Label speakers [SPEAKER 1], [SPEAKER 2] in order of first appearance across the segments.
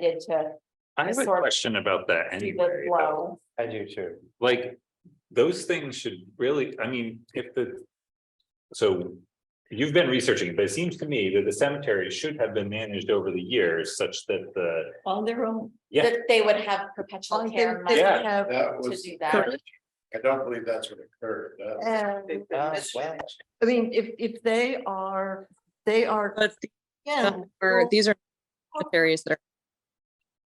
[SPEAKER 1] did to
[SPEAKER 2] I have a
[SPEAKER 1] sort of
[SPEAKER 2] question about that
[SPEAKER 1] see the
[SPEAKER 2] anyway, though.
[SPEAKER 1] flow.
[SPEAKER 3] I do too.
[SPEAKER 2] like, those things should really, I mean, if the. So, you've been researching, it, but it seems to me that the cemetery should have been managed over the years such that the,
[SPEAKER 4] on their own.
[SPEAKER 2] yeah.
[SPEAKER 1] That they would have perpetual
[SPEAKER 4] on their-
[SPEAKER 1] care
[SPEAKER 4] they
[SPEAKER 2] Yeah.
[SPEAKER 1] money
[SPEAKER 4] have,
[SPEAKER 5] That
[SPEAKER 1] to
[SPEAKER 5] was,
[SPEAKER 1] do that.
[SPEAKER 4] Correct.
[SPEAKER 5] I don't believe that's what occurred. That-
[SPEAKER 4] um,
[SPEAKER 3] Uh, well,
[SPEAKER 4] I mean, if, if they are, they are.
[SPEAKER 6] But the-
[SPEAKER 4] Yeah.
[SPEAKER 6] for-
[SPEAKER 4] well,
[SPEAKER 6] these are cemeteries that are,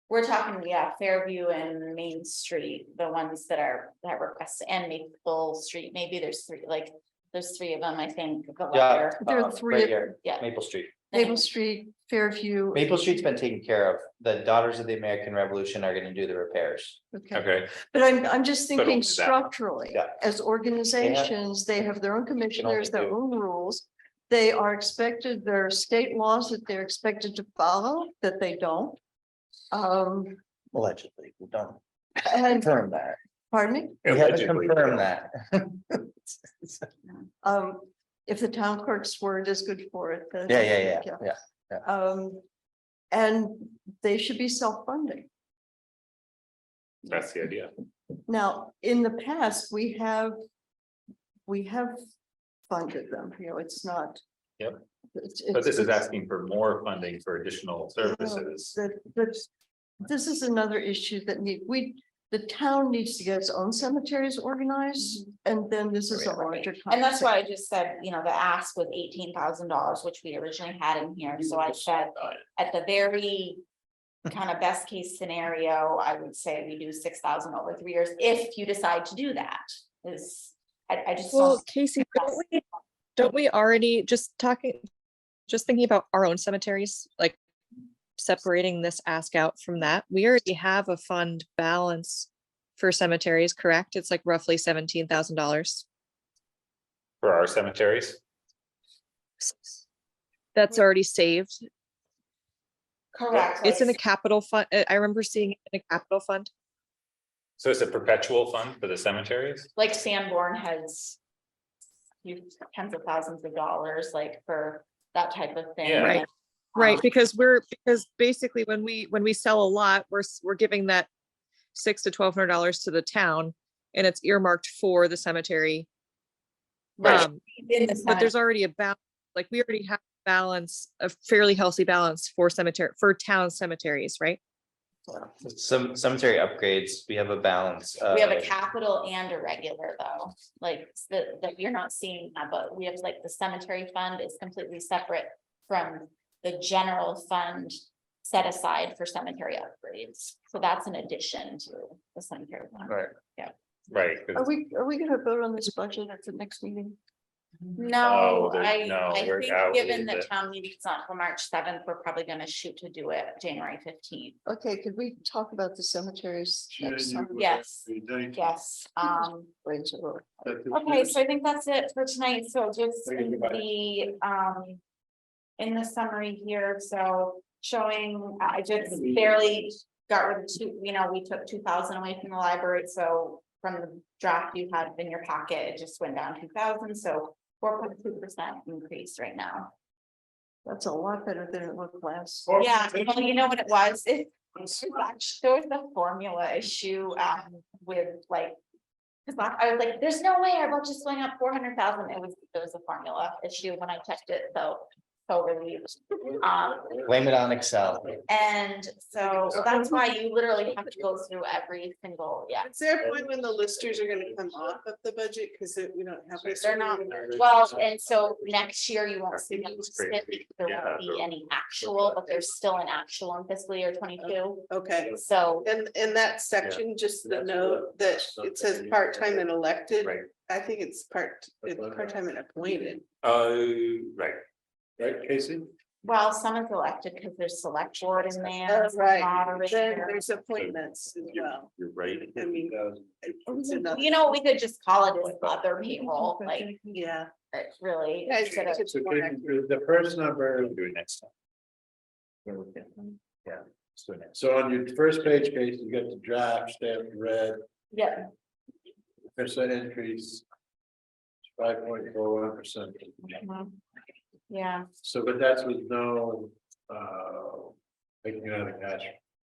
[SPEAKER 1] We're talking, yeah, Fairview and Main Street, the ones that are, that request and Maple Street, maybe there's three, like, there's three of them, I think. but
[SPEAKER 3] Yeah.
[SPEAKER 1] they're-
[SPEAKER 4] There are
[SPEAKER 3] uh,
[SPEAKER 4] three
[SPEAKER 3] right
[SPEAKER 4] of-
[SPEAKER 3] here,
[SPEAKER 1] Yeah.
[SPEAKER 3] Maple Street.
[SPEAKER 4] Maple Street, Fairview.
[SPEAKER 3] Maple Street's been taken care of. The Daughters of the American Revolution are gonna do the repairs.
[SPEAKER 4] Okay,
[SPEAKER 2] Okay,
[SPEAKER 4] but I'm, I'm just
[SPEAKER 2] But
[SPEAKER 4] thinking
[SPEAKER 2] only that.
[SPEAKER 4] structurally,
[SPEAKER 3] Yeah.
[SPEAKER 4] as organizations, they have their own commissioners, their
[SPEAKER 3] do-
[SPEAKER 4] own rules. They are expected, there are state laws that they're expected to follow, that they don't. Um,
[SPEAKER 3] Allegedly, we don't
[SPEAKER 4] and,
[SPEAKER 3] confirm that.
[SPEAKER 4] pardon me?
[SPEAKER 3] We haven't
[SPEAKER 2] Allegedly,
[SPEAKER 3] confirmed that.
[SPEAKER 4] Um, if the town clerk's word is good for it. then-
[SPEAKER 3] Yeah, yeah, yeah, yeah.
[SPEAKER 4] Um, and they should be self-funding.
[SPEAKER 2] that's the idea.
[SPEAKER 4] Now, in the past, we have, we have funded them, you know, it's not.
[SPEAKER 2] Yep.
[SPEAKER 4] It's-
[SPEAKER 2] But this is
[SPEAKER 4] it's-
[SPEAKER 2] asking for more funding for
[SPEAKER 1] Oh,
[SPEAKER 2] additional services.
[SPEAKER 4] that, that, this is another issue that need, we, the town needs to get its own cemeteries organized,
[SPEAKER 1] Mm-hmm.
[SPEAKER 4] and then this is a larger.
[SPEAKER 1] And that's
[SPEAKER 4] conversation.
[SPEAKER 1] why I just said, you know, the ask was eighteen thousand dollars, which we originally had in here, so I said, at the very. Kind of best case scenario, I would say we do six thousand over three years, if you decide to do that, is, I, I just.
[SPEAKER 6] well,
[SPEAKER 1] don't-
[SPEAKER 6] Casey, don't we, don't we already, just talking, just thinking about our own cemeteries, like separating this ask out from that, we already have a fund balance for cemeteries, correct? It's like roughly seventeen thousand dollars.
[SPEAKER 2] For our cemeteries,
[SPEAKER 6] That's already saved.
[SPEAKER 1] Correct.
[SPEAKER 6] It's in a
[SPEAKER 1] like-
[SPEAKER 6] capital fund. I remember seeing it in a capital fund.
[SPEAKER 2] so it's a perpetual fund for the cemeteries?
[SPEAKER 1] like Sanborn has. You tens of thousands of dollars, like for that type of thing. um,
[SPEAKER 2] Yeah.
[SPEAKER 6] Right. Right, because we're, because basically when we, when we sell a lot, we're, s- we're giving that six to twelve hundred dollars to the town and it's earmarked for the cemetery.
[SPEAKER 1] Right.
[SPEAKER 6] Um,
[SPEAKER 1] In the
[SPEAKER 6] But
[SPEAKER 1] senate,
[SPEAKER 6] there's already a balance, like we already have balance, a fairly healthy balance for cemetery, for town cemeteries, right?
[SPEAKER 3] Some cemetery upgrades, we have a balance.
[SPEAKER 1] we have
[SPEAKER 2] Uh,
[SPEAKER 1] a
[SPEAKER 3] of-
[SPEAKER 1] capital and a regular though, like that, that you're not seeing that, but we have like the cemetery fund is completely separate. From the general fund set aside for cemetery upgrades, so that's an addition to the cemetery. fund.
[SPEAKER 3] Right.
[SPEAKER 2] Right. 'cause
[SPEAKER 1] Oh.
[SPEAKER 4] Are we, are we gonna vote on this budget at the next meeting?
[SPEAKER 1] No,
[SPEAKER 2] Oh, there's-
[SPEAKER 1] I,
[SPEAKER 2] no,
[SPEAKER 1] I
[SPEAKER 2] we're
[SPEAKER 1] think
[SPEAKER 2] out
[SPEAKER 1] given
[SPEAKER 2] with
[SPEAKER 1] the
[SPEAKER 2] it.
[SPEAKER 1] town meeting's not till March seventh, we're probably gonna shoot to do it January fifteenth.
[SPEAKER 4] Okay, could we talk about the cemeteries next time?
[SPEAKER 5] January
[SPEAKER 1] Yes,
[SPEAKER 5] fifteenth.
[SPEAKER 1] yes, um,
[SPEAKER 4] Brains are all-
[SPEAKER 5] That is-
[SPEAKER 1] okay, so I think that's it for tonight, so just
[SPEAKER 5] Thank you,
[SPEAKER 1] in
[SPEAKER 5] bye.
[SPEAKER 1] the, um. In the summary here, so showing, I just barely got rid of two, you know, we took two thousand away from the library, so. From the draft you had in your pocket, it just went down two thousand, so four point two percent increase right now.
[SPEAKER 4] That's a lot better than it looked last.
[SPEAKER 5] Or-
[SPEAKER 1] Yeah, well, you know what it was, it, it was actually- there was a formula issue, um, with like. Cause like, I was like, there's no way our budget's going up four hundred thousand, it was, there was a formula issue when I checked it, so, so relieved. Um,
[SPEAKER 3] Blame it on Excel.
[SPEAKER 1] and so, so that's why you literally have to go through every single, yeah,
[SPEAKER 7] Is there a point when the listers are gonna come off of the budget, cause it- we don't have.
[SPEAKER 1] they're not, well, and so next year you won't see them, split because there won't be any actual, but there's still an actual in fiscal year twenty-two,
[SPEAKER 7] Okay,
[SPEAKER 1] so.
[SPEAKER 7] and in that section, just the note that it says part-time and elected,
[SPEAKER 2] Right.
[SPEAKER 7] I think it's part, it's part-time and appointed.
[SPEAKER 2] Uh, right.
[SPEAKER 5] Right, Casey?
[SPEAKER 1] Well, some is elected because there's select board in there.
[SPEAKER 7] Oh, right, then
[SPEAKER 1] moderator.
[SPEAKER 7] there's appointments as well.
[SPEAKER 2] You're right.
[SPEAKER 7] I mean,
[SPEAKER 5] uh,
[SPEAKER 7] it's enough.
[SPEAKER 1] You know, we could just call it as other payroll, like,
[SPEAKER 7] yeah.
[SPEAKER 1] it really.
[SPEAKER 7] Yeah, it's-
[SPEAKER 1] instead of-
[SPEAKER 7] it's
[SPEAKER 5] So
[SPEAKER 7] more
[SPEAKER 5] Casey,
[SPEAKER 7] active.
[SPEAKER 5] The first number,
[SPEAKER 2] Do it next time.
[SPEAKER 5] yeah, so on your first page, Casey, you got the draft stamped red,
[SPEAKER 1] Yeah,
[SPEAKER 5] percent increase. Five point four one percent,
[SPEAKER 1] yeah,
[SPEAKER 5] so but that's with no, uh, taking out of cash